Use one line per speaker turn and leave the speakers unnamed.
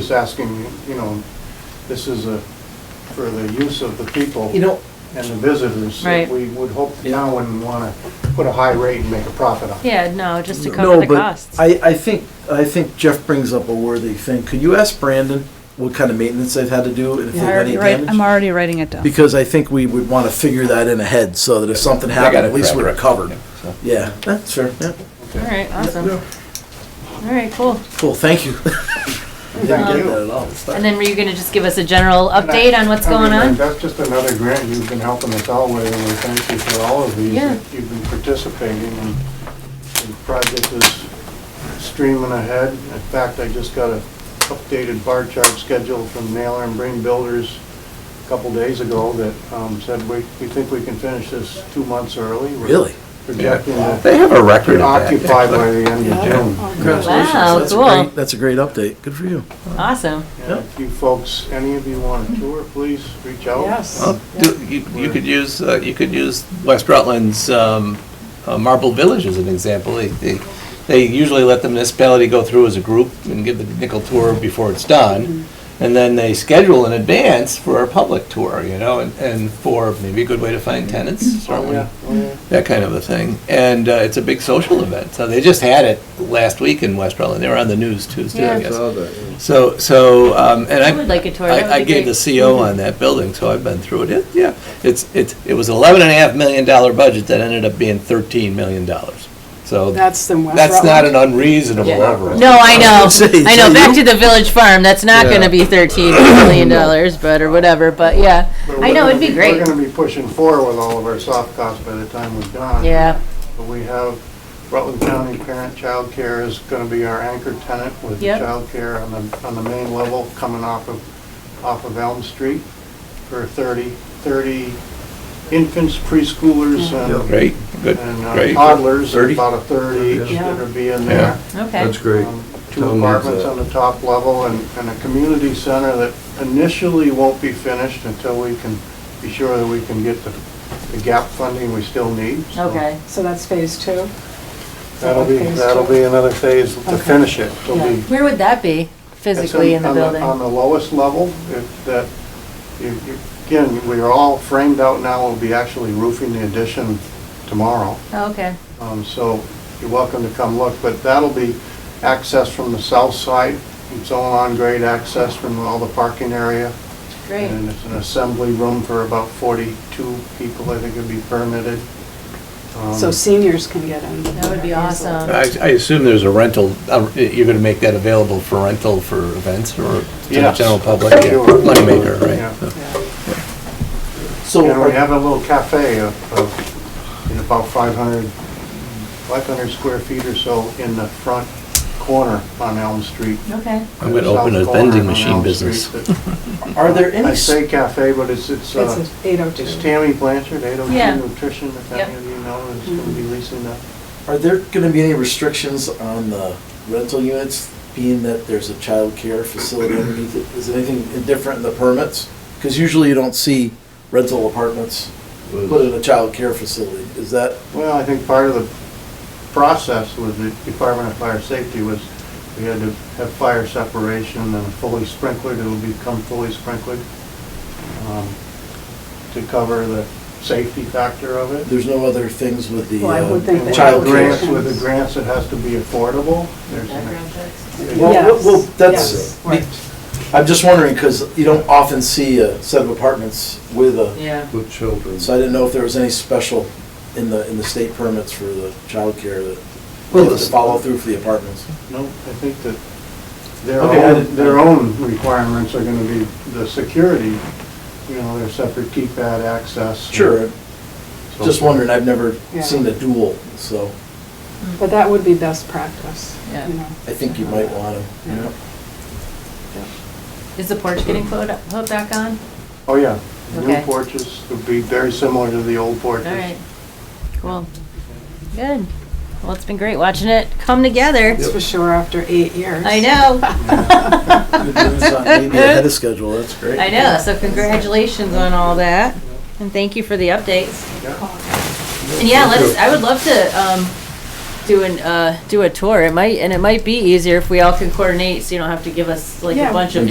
just asking, you know, this is a, for the use of the people.
You know,
And the visitors. that
Right.
We would hope the town wouldn't want to put a high rate and make a profit on it.
Yeah, no, just to cover
no,
the
but
costs.
I, I think, I think Jeff brings up a worthy thing. Could you ask Brandon what kind of maintenance they've had to do and if they've had any
already write- I'm
damage?
already writing it down.
Because I think we would want to figure that in ahead so that if something
I got
happened,
it
at least we're
correct.
covered.
So-
Yeah, that's fair, yeah.
All right, awesome. All right, cool.
Cool, thank you. Didn't
Thank
get
you.
that at all. It's
And
not-
then were you gonna just give us a general
And I-
update on what's
I
going
mean,
on?
That's just another grant you've been helping us out with, and we thank you for all of these.
Yeah.
that You've been participating, and the project is streaming ahead. In fact, I just got a updated bar chart schedule from Naylor and Brain Builders a couple days ago that um, said we, we think we can finish this two months early. We're
Really?
Projecting to
They have a record of that.
occupy by the end of June.
Congratulations.
Wow,
That's a
cool.
great- That's a great update, good for you.
Awesome.
And if you folks, any of you want a tour, please reach out.
Yes.
Well, do- You you could use, uh, you could use West Rutland's um, uh, Marble Village as an example. They- They they usually let the municipality go through as a group and give the nickel tour before it's done. And then they schedule in advance for a public tour, you know, and- and for maybe a good way to find tenants,
Oh,
certainly,
yeah, oh, yeah.
that kind of a thing. And uh, it's a big social event. So they just had it last week in West Rutland. They were on the news Tuesday, I
Yeah.
guess. So, so, um, and I.
I would like a tour. That would
I, I
be
gave the
great.
CO on that building, so I've been through it. It, yeah, it's, it, it was eleven and a half million dollar budget that ended up being thirteen million dollars. So
That's the West
that's not an
Rutland.
unreasonable
Yeah.
overall.
No, I know,
gonna say,
I know,
so
back
you-
to the village farm, that's not
Yeah.
gonna be thirteen million dollars, but, or whatever, but yeah.
But we're
I know,
gonna
it'd be great.
We're gonna be pushing four with all of our soft costs by the time we're done.
Yeah,
But we have Rutland County Parent Child Care is gonna be our anchor tenant with
Yep.
child care on the, on the main level coming off of, off of Elm Street for 30 30 infants, preschoolers
Mm.
and,
Great, good,
and uh,
great.
toddlers,
30?
about a third each
Yeah.
that are being
Yeah.
there.
okay.
great.
Um,
Town
Two
needs
apartments
that.
on the top level and, and a community center that initially won't be finished until we can be sure that we can get the, the gap funding we still need. So
Okay,
So that's phase two.
That'll be,
Phase two.
that'll be another phase to
Okay.
finish it. It'll
Yeah.
be-
where would that be physically
it's
in
on-
the
on
building?
On the lowest level, if that, you- you- again, we are all framed out now, we'll be actually roofing the addition tomorrow.
Oh, Okay,
Um, So you're welcome to come look, but that'll be access from the south side. It's all on grade access from all the parking area.
great,
And it's an assembly room for about 42 people, I think it'd be permitted. Um,
So seniors can get in.
that would be awesome.
I, I assume there's a rental, uh, you're gonna make that available for rental for events or to the
Yes.
general public?
Sure.
Yeah, Moneymaker,
Yeah.
right? So-
And we
So,
have a little cafe of, of, in about 500, 500 square feet or so in the front corner on Elm Street.
Okay,
I'm gonna
South
open
corner
a vending
on
machine
Elm
business.
Street that-
are there any?
I say cafe, but it's, it's, uh,
It's eight oh
It's
two.
Tammy Blanchard, 802
Yeah.
Nutrition, if any of you know, is going to be leasing that.
Are there going to be any restrictions on the rental units, being that there's a child care facility underneath it? Is anything different in the permits? Because usually you don't see rental apartments put in a child care facility. Is that,
Well, I think part of the process with the Department of Fire Safety was we had to have fire separation and fully sprinklered, it will become fully sprinklered um, to cover the safety factor of it.
there's no other things with the
Well, I would think
uh,
And With
child
the grants,
care?
would-
with the grants, it has to be affordable. There's an-
Well,
Yes,
well,
yes,
that's,
right.
I'm just wondering, because you don't often see a set of apartments with a,
yeah,
With children.
so I didn't know if there was any special in the, in the state permits for the child care that they
Well,
have to
this-
follow through for the apartments.
No, I think that their
Okay, I
own,
didn't-
their own requirements are gonna be the security, you know, their separate keypad access. and
Sure,
so
just
forth.
wondering, I've never
Yeah.
seen a duel, so
Hmm.
But that would be best practice,
Yeah.
you know.
I think you might want to, you know.
is the porch getting put- put back on?
Oh, yeah. New
Okay.
porches would be very similar to the old porches.
All right, cool, good. Well, it's been great watching it come together.
That's for sure after eight years.
I know.
Good news on Maybe ahead of schedule, that's great.
I know, so congratulations on all that, and thank you for the updates.
Yeah.
And yeah, let's, I would love to, um, do an, uh, do a tour. It might, and it might be easier if we all can coordinate, so you don't have to give us like
Yeah.
a bunch of